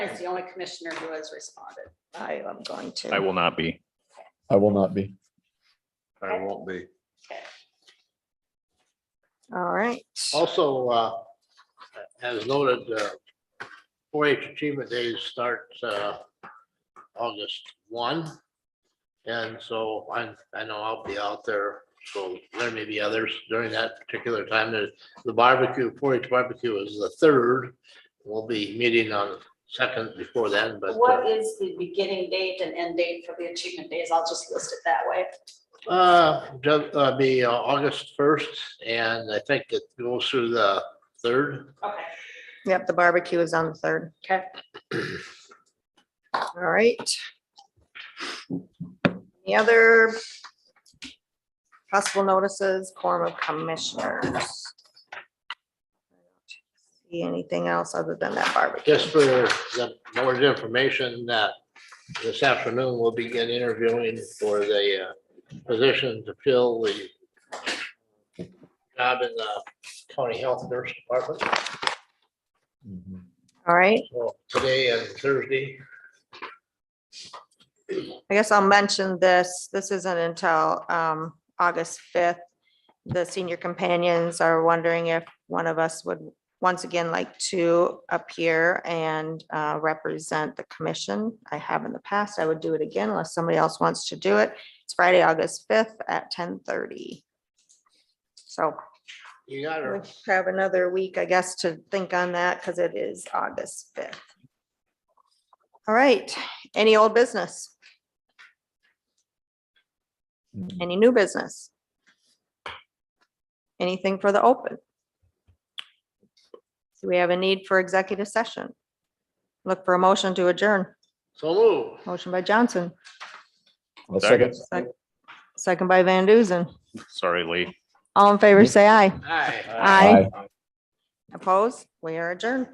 As the only commissioner who has responded. I am going to. I will not be. I will not be. I won't be. All right. Also, uh, as noted, uh, four H Achievement Days starts uh, August one. And so I, I know I'll be out there, so there may be others during that particular time. There's The barbecue, four H barbecue is the third. We'll be meeting on the second before then, but. uh, What is the beginning date and end date for the achievement days? I'll just list it that way. Uh, ju- uh, be uh, August first, and I think it goes through the third. Okay. Yep, the barbecue is on the third. Okay. All right. Any other possible notices, quorum of commissioners? See anything else other than that barbecue? Just for the more information that this afternoon we'll begin interviewing for the uh, position to fill the job in the county health nurse department. All right, So today and Thursday, I guess I'll mention this. This isn't until um August fifth. The senior companions are wondering if one of us would once again like to appear and uh represent the commission. I have in the past. I would do it again unless somebody else wants to do it. It's Friday, August fifth at ten thirty. So you got we her. have another week, I guess, to think on that because it is August fifth. All right, any old business? Any new business? Anything for the open? Do we have a need for executive session? Look for a motion to adjourn. So move. Motion by Johnson, I'll second. second by Van Duzen. Sorry, Lee. All in favor, say aye. Aye. Aye. Opposed? We are adjourned.